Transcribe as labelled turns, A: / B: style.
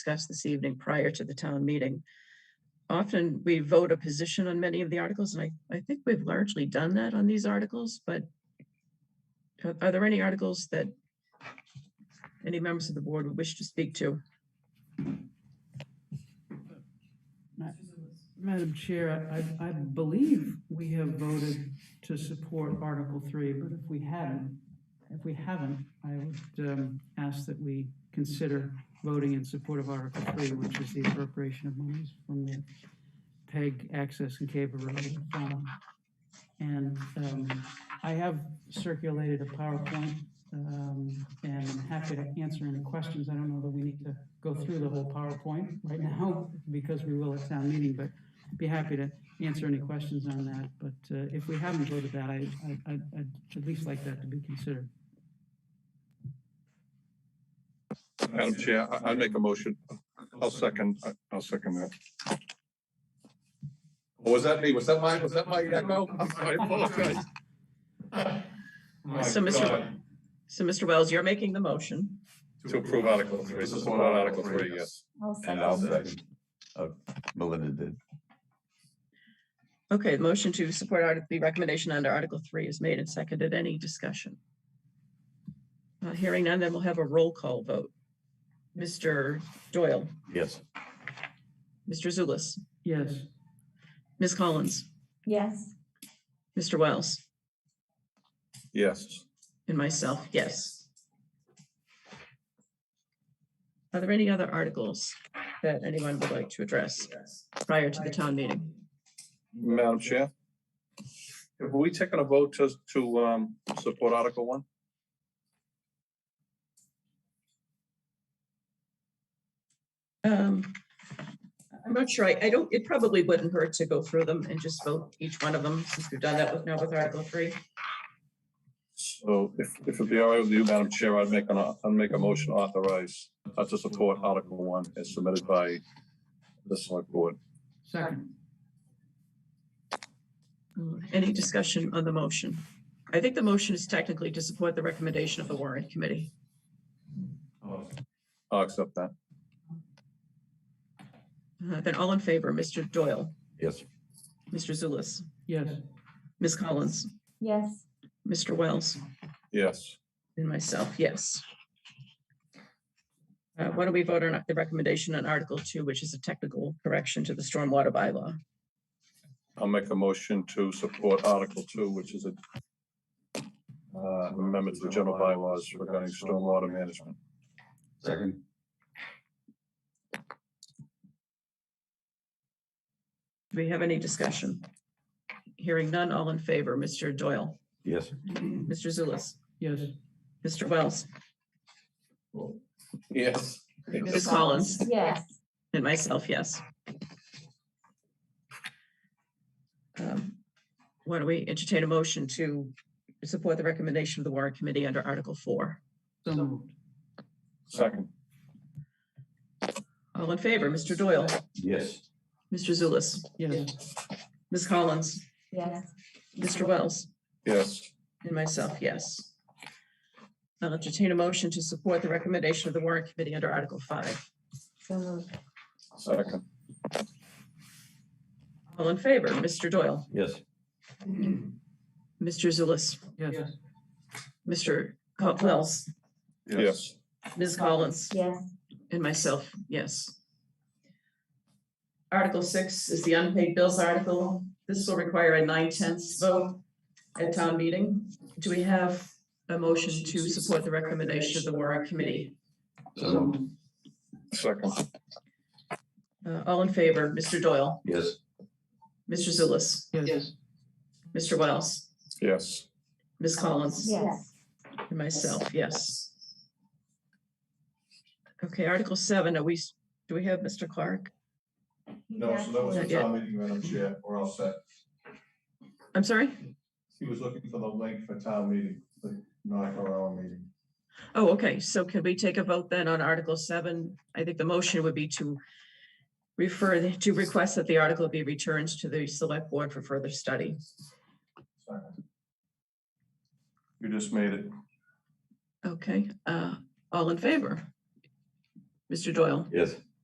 A: discussed this evening prior to the town meeting. Often we vote a position on many of the articles, and I, I think we've largely done that on these articles, but are- are there any articles that any members of the board would wish to speak to?
B: Madam Chair, I, I believe we have voted to support Article Three, but if we hadn't, if we haven't, I would um, ask that we consider voting in support of Article Three, which is the appropriation of monies from the PEG access and cable road. fund. And um, I have circulated a PowerPoint, um, and I'm happy to answer any questions. I don't know that we need to go through the whole PowerPoint right now, because we will at town meeting, but be happy to answer any questions on that. But uh, if we haven't voted that, I, I- I'd, I'd at least like that to be considered.
C: Madam Chair, I- I'll make a motion. I'll second, I'll second that. Was that me? Was that my, was that my echo? I apologize. My
A: So, Mr.
C: God.
A: So, Mr. Wells, you're making the motion.
C: To approve Article Three, support Article Three, yes.
D: I'll
E: And I'll
D: second.
E: second. Oh, Melinda did.
A: Okay, the motion to support Article, the recommendation under Article Three is made and seconded. Any discussion? Not hearing none, then we'll have a roll call vote. Mr. Doyle,
E: Yes.
A: Mr. Zulus,
B: Yes,
A: Ms. Collins,
D: Yes,
A: Mr. Wells,
C: Yes.
A: and myself, yes. Are there any other articles that anyone would like to address prior to the town meeting?
C: Madam Chair? Have we taken a vote to, to, um, support Article One?
A: Um, I'm not sure. I, I don't, it probably wouldn't hurt to go through them and just vote each one of them, since we've done that with now with Article Three.
C: So if, if it'd be all right with you, Madam Chair, I'd make an, I'd make a motion to authorize, uh, to support Article One as submitted by the select board.
B: second.
A: Uh, Any discussion on the motion? I think the motion is technically to support the recommendation of the warrant committee.
C: I'll accept that.
A: Uh, Then all in favor, Mr. Doyle,
E: Yes.
A: Mr. Zulus,
B: Yes,
A: Ms. Collins,
D: yes,
A: Mr. Wells,
C: Yes.
A: and myself, yes. Uh, Why don't we vote on the recommendation on Article Two, which is a technical correction to the stormwater bylaw?
C: I'll make a motion to support Article Two, which is a uh, amendment to the general bylaws regarding stormwater management.
E: Second.
A: Do we have any discussion? Hearing none, all in favor, Mr. Doyle,
E: Yes.
A: Mr. Zulus,
B: yes,
A: Mr. Wells,
C: Yes.
A: Ms. Collins,
D: yes,
A: And myself, yes. Um, Why don't we entertain a motion to support the recommendation of the warrant committee under Article Four?
B: so moved.
C: Second,
A: All in favor, Mr. Doyle,
E: Yes.
A: Mr. Zulus,
B: Yes,
A: Ms. Collins,
D: yes,
A: Mr. Wells,
C: yes.
A: and myself, yes. I'll entertain a motion to support the recommendation of the warrant committee under Article Five.
D: so moved.
C: Second,
A: All in favor, Mr. Doyle,
E: Yes.
A: Mr. Zulus,
B: yes,
A: Mr. Co- Wells,
C: yes.
A: Ms. Collins,
D: Yes,
A: And myself, yes. Article six is the unpaid bills article. This will require a nine tenths vote at town meeting. Do we have a motion to support the recommendation of the warrant committee?
E: So moved.
C: Second,
A: Uh, all in favor, Mr. Doyle,
E: Yes.
A: Mr. Zulus,
B: yes,
A: Mr. Wells,
C: yes.
A: Ms. Collins?
D: yes,
A: And myself, yes. Okay, Article seven, are we, s- do we have Mr. Clark?
C: No, so that was the
A: Not yet.
C: town meeting, Madam Chair, we're all set.
A: I'm sorry?
C: He was looking for the link for town meeting, the not our own meeting.
A: Oh, okay, so can we take a vote then on Article seven? I think the motion would be to refer, the- to request that the article be returned to the select board for further study.
C: Second. You just made it.
A: Okay, uh, all in favor? Mr. Doyle,
E: Yes.